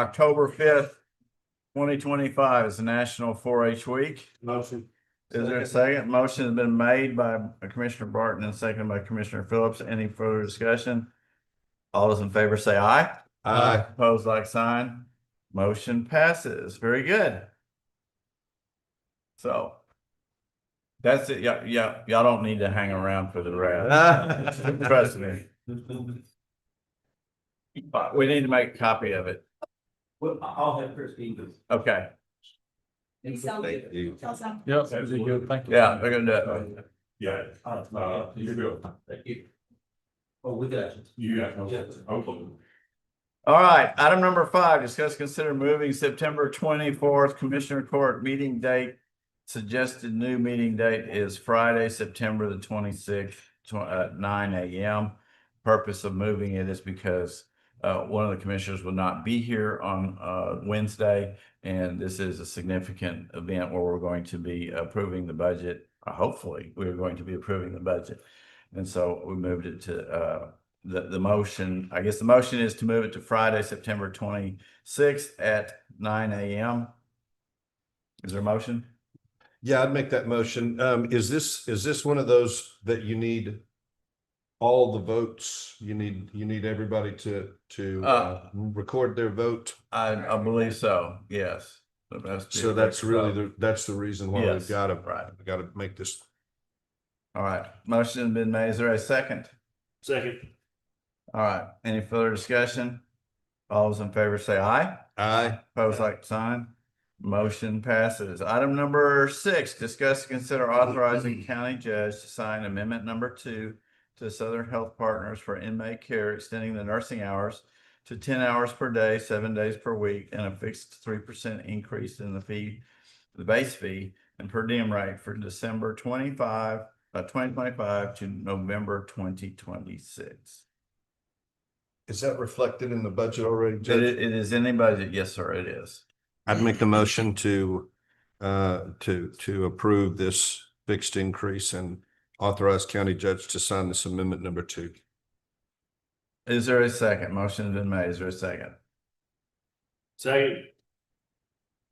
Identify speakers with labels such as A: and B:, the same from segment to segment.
A: October fifth, twenty twenty-five is the National Four H Week.
B: Motion.
A: Is there a second? Motion has been made by Commissioner Barton and seconded by Commissioner Phillips. Any further discussion? All those in favor say aye.
B: Aye.
A: Opposed, like sign. Motion passes. Very good. So that's it. Yeah, yeah, y'all don't need to hang around for the rest. Trust me. But we need to make a copy of it.
B: Well, I'll have Chris do this.
A: Okay,
C: He sounds
B: Thank you.
C: good. Tell some-
D: Yep, that'd be good, thank you.
A: yeah, they're gonna do it.
E: Yeah, uh, you go.
B: Thank you. Oh, we got you.
E: You got, okay.
A: All right, item number five, discuss, consider moving September twenty-fourth Commissioner Court meeting date. Suggested new meeting date is Friday, September the twenty-sixth, tw- uh, nine AM. Purpose of moving it is because, uh, one of the commissioners will not be here on, uh, Wednesday. And this is a significant event where we're going to be approving the budget, uh, hopefully, we're going to be approving the budget. And so we moved it to, uh, the, the motion, I guess the motion is to move it to Friday, September twenty-sixth at nine AM. Is there a motion?
F: Yeah, I'd make that motion. Um, is this, is this one of those that you need all the votes? You need, you need everybody to, to, uh,
A: Uh.
F: record their vote?
A: I, I believe so, yes. That must be-
F: So that's really, the that's the reason why
A: Yes,
F: we've got to,
A: right.
F: got to make this.
A: All right, motion has been made. Is there a second?
B: Second.
A: All right, any further discussion? All those in favor say aye.
F: Aye,
A: Pose like sign. Motion passes. Item number six, discuss, consider authorizing county judge to sign amendment number two to Southern Health Partners for inmate care, extending the nursing hours to ten hours per day, seven days per week, and a fixed three percent increase in the fee, the base fee and per diem rate for December twenty-five, uh, twenty twenty-five to November twenty twenty-six.
F: is that reflected in the budget already,
A: It,
F: Judge?
A: it is in the budget. Yes, sir, it is.
F: I'd make the motion to, uh, to, to approve this fixed increase and authorize county judge to sign this amendment number two.
A: Is there a second? Motion's been made. Is there a second?
B: Second.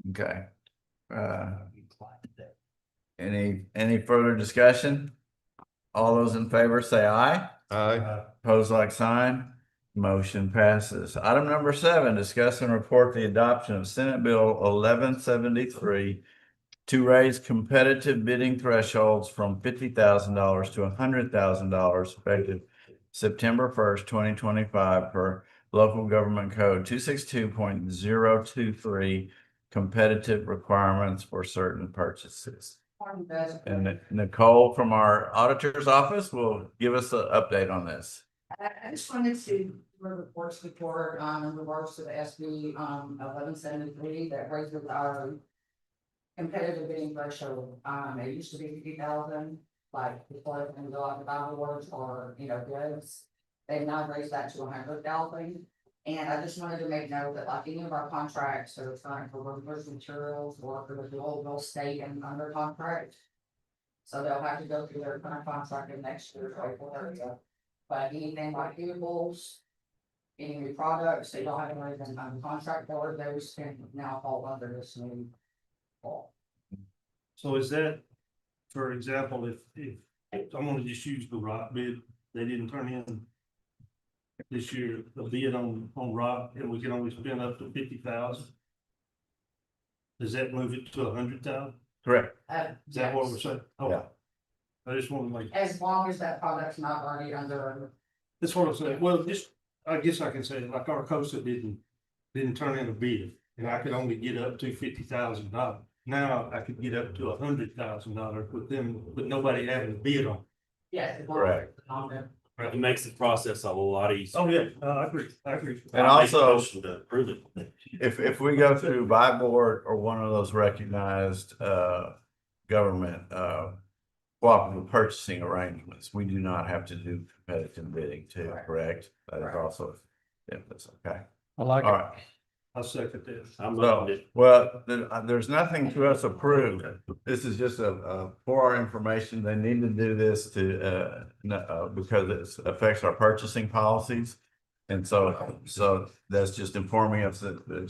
A: Okay. Uh, any, any further discussion? All those in favor say aye.
F: Aye.
A: Pose like sign. Motion passes. Item number seven, discuss and report the adoption of Senate Bill eleven seventy-three to raise competitive bidding thresholds from fifty thousand dollars to hundred thousand dollars effective September first, twenty twenty-five per local government code two six two point zero two three competitive requirements for certain purchases. And Nicole from our auditor's office will give us an update on this.
G: I, I just wanted to report to the board um, in regards to the SB, um, eleven seventy-three that raises our competitive bidding threshold. Um, it used to be fifty thousand, like before and go out to buy awards or, you know, bids. They've now raised that to hundred thousand. And I just wanted to make note that like any of our contracts, so it's not for workers materials or for the old will stay and under contract. So they'll have to go through their current contract in next year, April thirtieth. But anything like vehicles. Any new products, they don't have to raise them on contract for those can now fall under this new. law.
H: So is that, for example, if, if, I'm gonna just use the rock bid, they didn't turn in. This year, the bid on, on rock, and we can only spend up to fifty thousand. Does that move it to a hundred thousand?
A: Correct.
G: Uh,
H: Is that what
G: yes.
H: we're saying? Oh,
A: Yeah.
H: I just wanna make,
G: As long as that product's not already under,
H: that's what I'm saying, well, just, I guess I can say, like Arcosa didn't, didn't turn in a bid. And I could only get up to fifty thousand dollars, now I could get up to a hundred thousand dollars with them, with nobody having a bid on. it.
G: yes. as long as
A: Correct.
G: it's not under-
B: It makes the process a lot easier.
H: Oh, yeah, uh, I agree, I agree.
A: And
B: I'll make a
A: also-
B: motion To approve it.
A: If, if we go through by board or one of those recognized, uh, government, uh, cooperative purchasing arrangements, we do not have to do competitive bidding too,
G: Correct.
A: correct? That is
G: Correct.
A: also, yeah, that's okay.
D: I like
A: All
D: it.
A: right.
H: I second this.
B: I'm
A: So,
B: looking
A: well, there, uh, there's nothing to us approved. This is just a, uh, for our information. They need to do this to, uh, no, uh, because it affects our purchasing policies. And so, so that's just informing us that, that